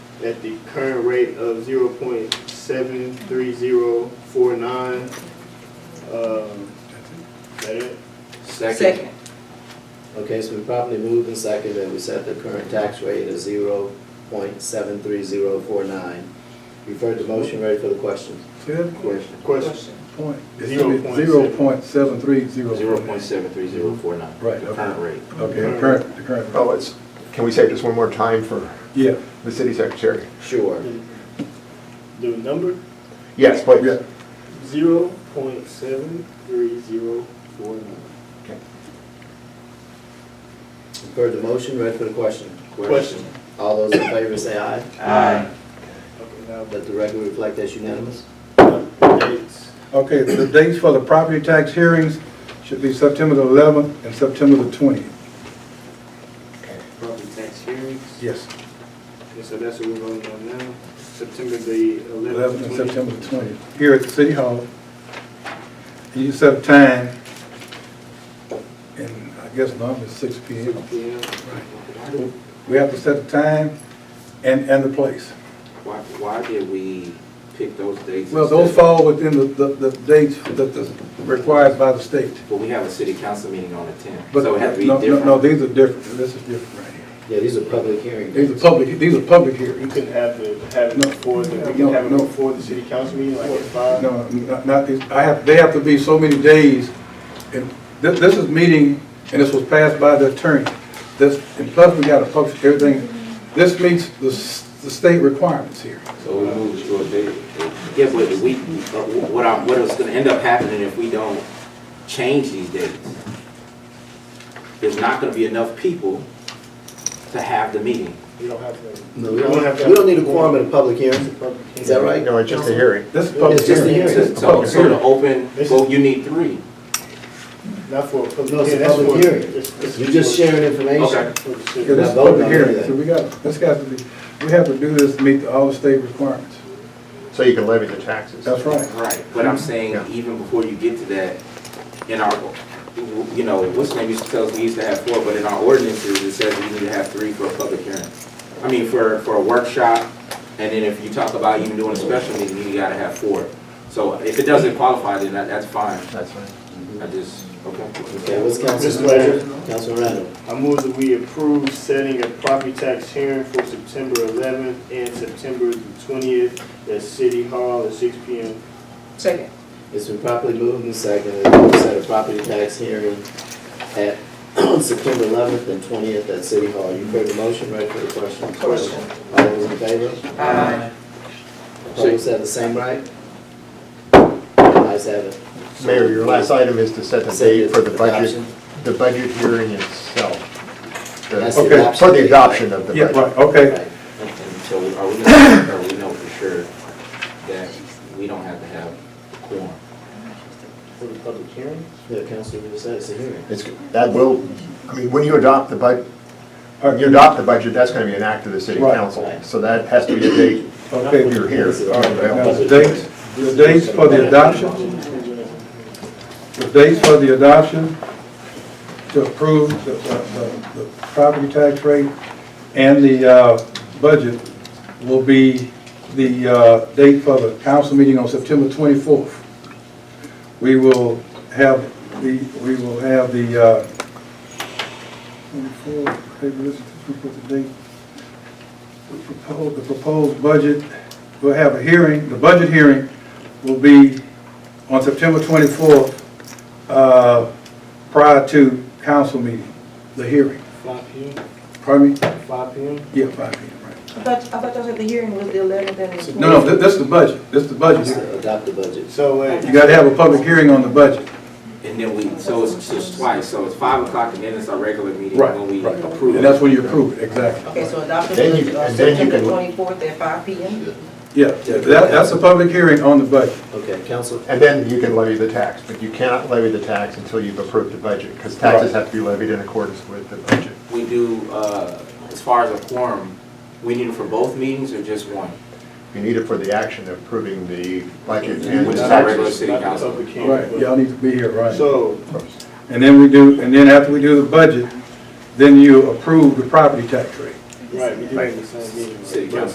at the current rate of zero point seven three zero four nine. Um, that it? Second. Okay, it's been properly moved and seconded that we set the current tax rate at zero point seven three zero four nine. You've heard the motion, ready for the question? Say that Question. Question. point. Zero point seven. Zero point seven three zero. Zero point seven three zero four nine. Right, The okay. current rate. Okay, the current, the current. Oh, it's, can we say just one more time for Yeah, the city secretary? Sure. The number, Yes, please. yeah. zero point seven three zero four nine. You've heard the motion, ready for the question? Question. All those in favor say aye. Aye. Okay, now Let the record reflect that's unanimous. the dates. Okay, the dates for the property tax hearings should be September the eleventh and September the twentieth. Property tax hearings. Yes. And so that's what we're voting on now, September the Eleventh and eleventh, September twenty. the twentieth, here at the City Hall. And you set a time, and I guess normally it's six P M. We have to set a time and, and the place. Why, why did we pick those dates? Well, those instead of- fall within the, the, the dates that is required by the state. But we have a city council meeting on the tenth, But, so it had to be no, no, no, different. these are different, this is different right here. Yeah, these are public hearings. These are public, these are public You hearings. couldn't have the, have it No. before, the- we No, can have it no. before the city council meeting, like at five? No, not, not these, I have, they have to be so many days. And this, this is meeting, and this was passed by the attorney. This, and plus we gotta publish everything. This meets the, s- the state requirements here. So we moved to a date. Yeah, but we, uh, what I, what is gonna end up happening if we don't change these dates? There's not gonna be enough people to have the meeting. You don't have to. No, we don't, we don't need a quorum in a public hearing. Is that right? No, it's just a hearing. This is public It's just a hearing. hearing. This is So, public so to hearing. open, vote, you need three. Not for, for, No, it's yeah, a that's for. public hearing. it's- it's You're just for- sharing information. Okay. for the Yeah, city. this Now is vote public on hearing, everything. so we got, this got to be, we have to do this to meet all the state requirements. So you can levy the taxes. That's right. Right, but I'm saying, Yeah. even before you get to that, in our, you know, what's name used to tell us we used to have four, but in our ordinances, it says we need to have three for a public hearing. I mean, for, for a workshop, and then if you talk about even doing a special meeting, you gotta have four. So if it doesn't qualify, then that, that's fine, That's right. I just, Okay, okay. what's council's Mr. Mayor. pleasure? Councilman Randall. I move that we approve setting a property tax hearing for September eleventh and September the twentieth at City Hall at six P M. Second. It's been properly moved and seconded that we set a property tax hearing at September eleventh and twentieth at City Hall. You've heard the motion, ready for the question? Question. All those in favor? Aye. Opposed, have the same right? Ayes have it. Mayor, your last item is to set the date for the budget, Adoption. the budget hearing itself. The- That's the Okay, adoption. For the adoption of the Yeah, budget. right, okay. Right. And and so are we gonna, are we know for sure that we don't have to have a quorum? For the public hearing? Yeah, Councilman, you said it's a hearing. It's, that will, I mean, when you adopt the bud, when you adopt the budget, that's gonna be an act of the city Right. council. So that has to be a date Okay, you're here. All right, now, the dates, the dates for the adoption, the dates for the adoption to approve the, the, the- the property tax rate and the, uh, budget will be the, uh, date for the council meeting on September twenty-fourth. We will have the, we will have the, uh, twenty-four, hey, this is, we put the date. We propose, the proposed budget, we'll have a hearing, the budget hearing will be on September 24th, uh, prior to council meeting, the hearing. Five P M, Pardon me? five P M. Yeah, 5 p.m., right. I thought, I thought y'all said the hearing was the eleventh and the twentieth. No, no, thi- this is the budget, this is the budget. It's hearing. to adopt the budget. So, wait. You gotta have a public hearing on the budget. And then we, so it's just twice, so it's five o'clock and then it's our regular meeting Right, when we right. approve. And it. that's when you approve it, exactly. Okay, so adoption Then was you- uh, and then you September can- twenty-fourth at five P M. Yeah, that, that's a public hearing on the budget. Okay, Council, And then you can levy the tax, but you cannot levy the tax until you've approved the budget, because taxes Right. have to be levied in accordance with the budget. We do, uh, as far as a quorum, we need it for both meetings or just one? You need it for the action of approving the budget and the Which is our regular taxes. city Not the council. public hearing, Right, but- y'all need to be here, right? So, And then we do, and then after we do the budget, then you approve the property tax rate. right, we do have the same meeting. City But- council.